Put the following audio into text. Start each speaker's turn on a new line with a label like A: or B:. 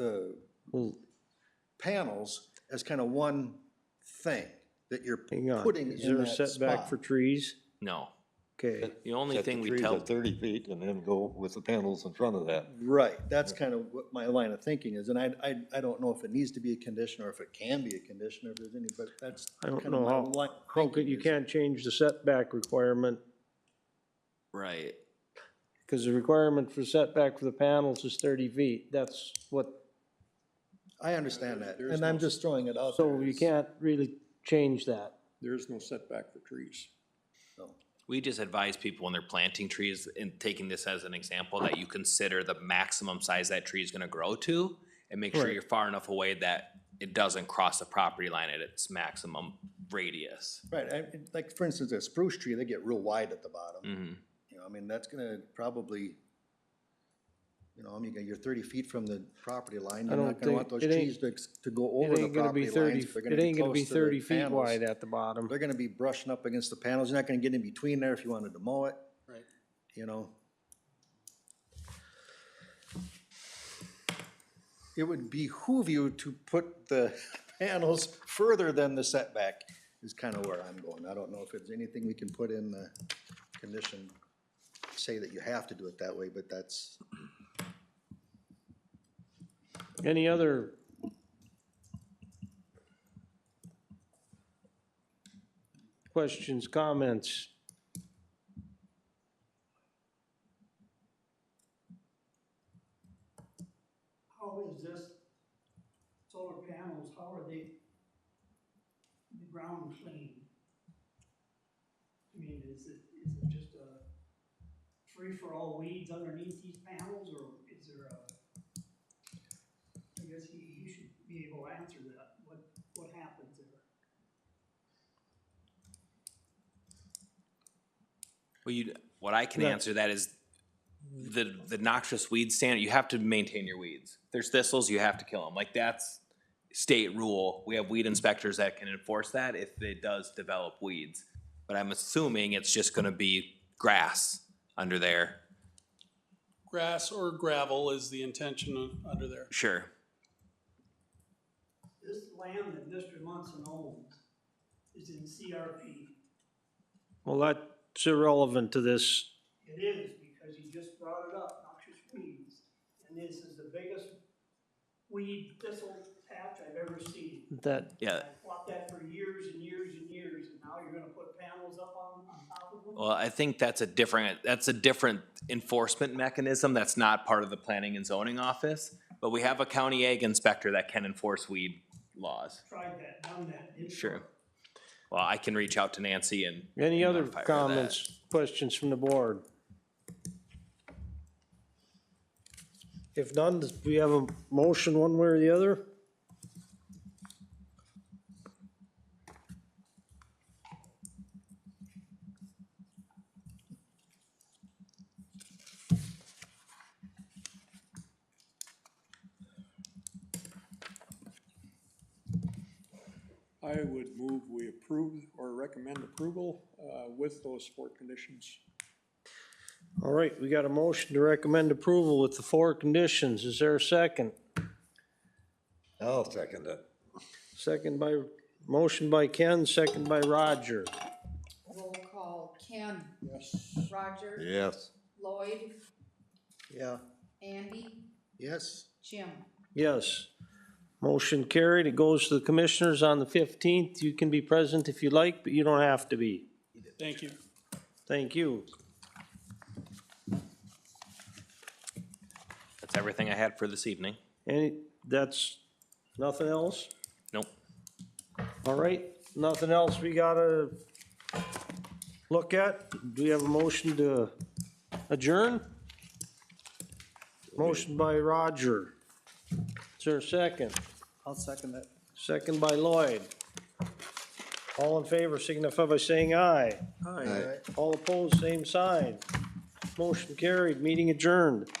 A: uh, panels as kind of one thing that you're
B: Hang on,
A: putting
B: is there
A: in
B: a
A: that
B: setback
A: spot.
B: for trees?
C: No,
B: Okay,
C: the only
D: Set the
C: thing we
D: trees
C: tell,
D: at Thirty feet and then go with the panels in front of that.
A: Right, that's kind of what my line of thinking is, and I, I, I don't know if it needs to be a condition or if it can be a condition, or if there's any, but that's.
B: I don't
A: kind of
B: know
A: my
B: how-
A: line of
B: how could,
A: thinking
B: you
A: is-
B: can't change the setback requirement,
C: right,
B: because the requirement for setback for the panels is thirty feet, that's what,
A: I understand that,
E: There is
A: and I'm
E: no-
A: just throwing it out.
B: so
A: there
B: you
A: as-
B: can't really change that.
E: There is no setback for trees.
A: no.
C: we just advise people when they're planting trees and taking this as an example, that you consider the maximum size that tree is gonna grow to and make sure
B: Right.
C: you're far enough away that it doesn't cross the property line at its maximum radius.
A: Right, I, like, for instance, a spruce tree, they get real wide at the bottom,
C: Mhm.
A: you know, I mean, that's gonna probably, you know, I mean, you're thirty feet from the property line,
B: I
A: you're not
B: don't
A: gonna want
B: think-
A: those
B: it ain't-
A: trees to, ex- to go over
B: It
A: the
B: ain't gonna
A: property
B: be thirty,
A: lines. They're
B: it ain't gonna be
A: close to the
B: thirty feet
A: panels.
B: wide at the bottom.
A: They're gonna be brushing up against the panels, you're not gonna get in between there if you wanted to mow it.
E: Right.
A: You know? It would behoove you to put the panels further than the setback, is kinda where I'm going. I don't know if it's anything we can put in the condition, say that you have to do it that way, but that's,
B: Any other? Questions, comments?
F: How is this solar panels, how are they the ground clean? I mean, is it, is it just a free-for-all weeds underneath these panels, or is there a? I guess he, he should be able to answer that, what, what happens there?
C: Well, you, what I can
B: Yeah.
C: answer that is the, the noxious weed standard, you have to maintain your weeds. If There's thistles, you have to kill them. Like that's state rule. We have weed inspectors that can enforce that if it does develop weeds. But I'm assuming it's just gonna be grass under there.
E: Grass or gravel is the intention of, under there.
C: Sure.
F: This land that Mr. Munson owns is in CRP.
B: Well, that's irrelevant to this.
F: It is, because you just brought it up, noxious weeds, and this is the biggest weed thistle patch I've ever seen.
B: That,
C: Yeah.
F: I fought that for years and years and years, and now you're gonna put panels up on, on top of them?
C: Well, I think that's a different, that's a different enforcement mechanism that's not part of the planning and zoning office. But we have a county egg inspector that can enforce weed laws.
F: Tried that, done that. didn't
C: Sure.
F: work.
C: Well, I can reach out to Nancy and
B: any other
C: Modify that.
B: comments, questions from the board? If none, do we have a motion one way or the other?
E: I would move we approve or recommend approval, uh, with those four conditions.
B: All right, we got a motion to recommend approval with the four conditions. Is there a second?
D: I'll second it.
B: Second by, motion by Ken, second by Roger.
G: Roll call, Ken,
E: Yes.
G: Roger,
D: Yes.
G: Lloyd,
A: yeah,
G: Andy,
A: yes.
G: Jim.
B: Yes. Motion carried. It goes to the commissioners on the fifteenth. You can be present if you like, but you don't have to be.
E: Thank you.
B: Thank you.
C: that's everything I had for this evening.
B: Any, that's, nothing else?
C: Nope.
B: All right, nothing else we gotta look at? Do we have a motion to adjourn? Motion by Roger. Is there a second?
A: I'll second that.
B: Second by Lloyd. All in favor signify by saying aye.
A: All right.
B: All opposed, same sign. Motion carried, meeting adjourned.